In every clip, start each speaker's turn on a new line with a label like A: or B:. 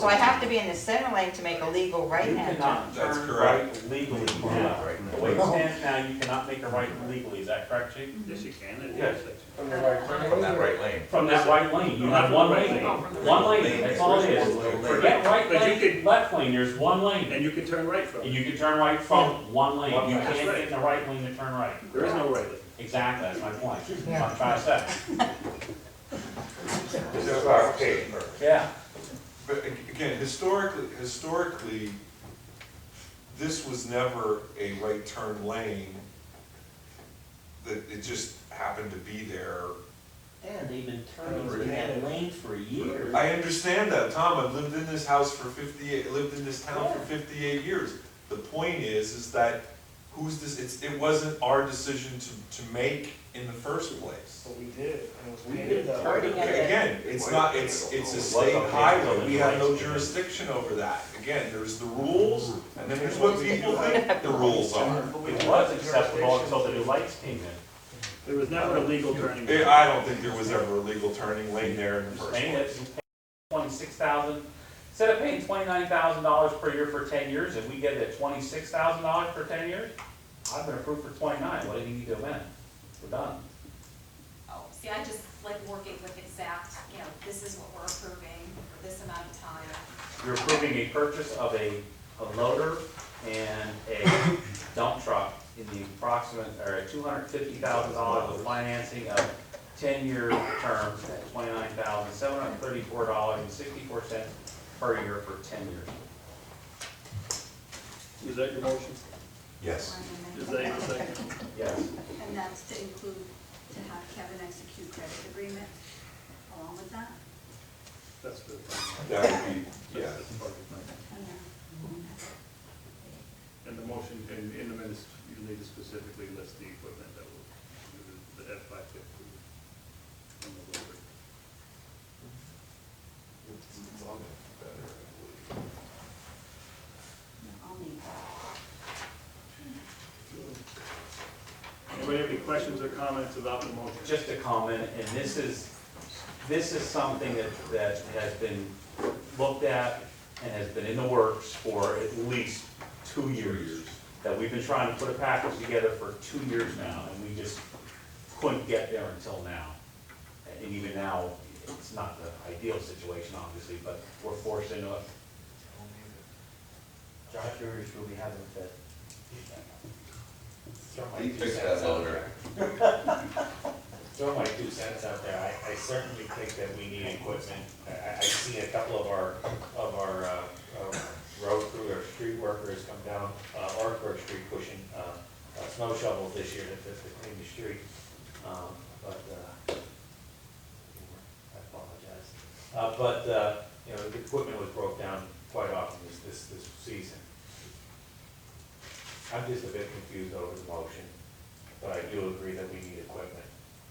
A: So I have to be in the center lane to make a legal
B: You
A: right-hand turn.
B: cannot
C: That's
B: turn
C: correct.
B: right legally. The way it stands now, you cannot make a right legally, is that correct, chief?
D: Yes, you can, at the
B: Yes.
D: intersection.
E: From the right
C: From that right lane.
B: From that right lane, you have one lane, one lane, that's all it is. Forget right
D: But you
B: lane,
D: could-
B: left lane, there's one lane,
D: And you can turn right from
B: and
D: it.
B: you can turn right from one lane, you
D: That's
B: can't
D: right.
B: get in the right lane to turn right.
D: There is no right.
B: Exactly, that's my point, I'm trying to say.
E: This is our case.
B: Yeah.
C: But ag- again, historically, historically, this was never a right turn lane. That it just happened to be there.
F: And they've been turning through that lane for years.
C: I understand that, Tom, I've lived in this house for fifty-eight, lived in this town for fifty-eight years. The point is, is that who's this, it's, it wasn't our decision to, to make in the first place.
E: But we did, and it was
D: We
E: painted
D: did.
E: up.
A: Already got it.
C: Again, it's not, it's, it's a state highway, we have no jurisdiction over that. Again, there's the rules, and then there's what people think the rules are.
B: It was acceptable until the new lights came in.
D: There was never a legal turning.
C: Eh, I don't think there was ever a legal turning lane there in the first
B: Saying that
C: place.
B: you pay twenty-six thousand, instead of paying twenty-nine thousand dollars per year for ten years, if we get it at twenty-six thousand dollars for ten years, I've been approved for twenty-nine, what do you need to amend? We're done.
G: Oh, see, I just like working with exact, you know, this is what we're approving for this amount of time.
B: You're approving a purchase of a, a loader and a dump truck in the approximate, or two hundred fifty thousand dollars of financing of ten-year terms at twenty-nine thousand, seven hundred thirty-four dollars and sixty-four cents per year for ten years.
D: Is that your motion?
C: Yes.
D: Is that your second?
B: Yes.
H: And that's to include, to have Kevin execute credit agreement along with that.
D: That's the.
C: That would be, yeah.
D: That's the part of it.
H: And then-
D: And the motion, in, in the minutes, you need to specifically list the equipment that will, the F five fifty.
H: I'll need that.
D: Anybody have any questions or comments about the motion?
B: just a comment, and this is, this is something that, that has been looked at and has been in the works for at least two years. That we've been trying to put a package together for two years now, and we just couldn't get there until now. And even now, it's not the ideal situation, obviously, but we're forced into it.
F: Josh, yours will be having a fit.
I: You fix that loader.
J: Throw my two cents out there, I, I certainly think that we need equipment. I- I, I see a couple of our, of our, uh, uh, road crew or street workers come down, uh, Orangeburg Street pushing, uh, uh, snow shovels this year to, to to clean the street. Um, but, uh, I apologize. Uh, but, uh, you know, the equipment was broke down quite often this, this, this season. I'm just a bit confused over the motion, but I do agree that we need equipment.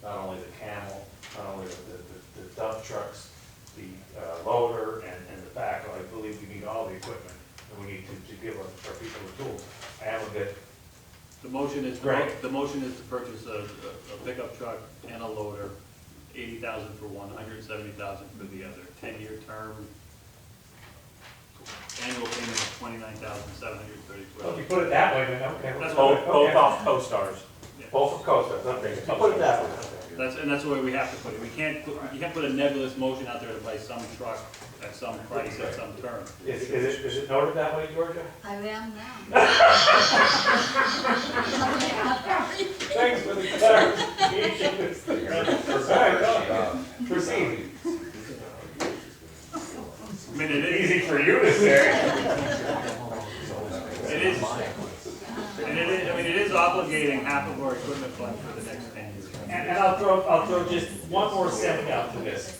J: Not only the camel, not only the, the- the dump trucks, the uh, loader and, and the backhoe, I believe we need all the equipment. And we need to, to give our our people the tools. I am a bit,
D: The motion is,
J: Right.
D: the motion is to purchase a, a pickup truck and a loader, eighty thousand for one, hundred and seventy thousand for the other, ten-year term. Annual payment of twenty-nine thousand, seven hundred and thirty-two
J: well, if you
D: dollars.
J: put it that way, then okay.
D: That's
B: Both, both
J: Okay.
B: off co-stars.
J: Both of Costa, not big.
B: You put it that way.
D: That's, and that's the way we have to put it, we can't, put- you can't put a nebulous motion out there to buy some truck at some price at some term.
J: Is, is it, is it noted that way, Georgia?
H: I am now.
J: Thanks for the clarification.
C: uh,
J: Proceed.
D: I mean, it is,
J: Easy for you to say.
D: it is, and it is, I mean, it is obligating half of our equipment fund for the next ten years.
I: And, and I'll throw, I'll throw just one more step out to this.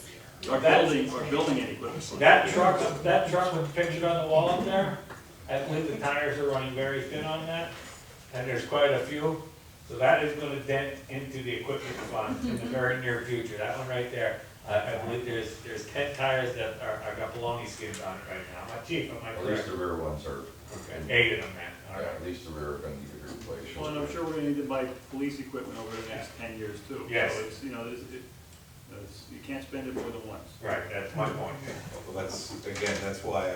D: Our building, our building and equipment. fund.
I: That truck, that truck with pictured on the wall up there, I believe the tires are running very thin on that, and there's quite a few. So that is gonna dent into the equipment fund in the very near future, that one right there. I, I believe there's, there's ten tires that are, are got baloney skins on it right now. My chief, am I
C: At
I: correct?
C: the rear ones are,
I: Okay, Eight of them, man, all right.
C: at least the rear are gonna need a replacement.
D: Well, and I'm sure we're gonna need to buy police equipment over the next ten years too.
I: Yes.
D: So it's, you know, it's, it,
K: That's- You can't spend it more than once.
D: Right, that's my point.
B: Well, that's, again, that's why I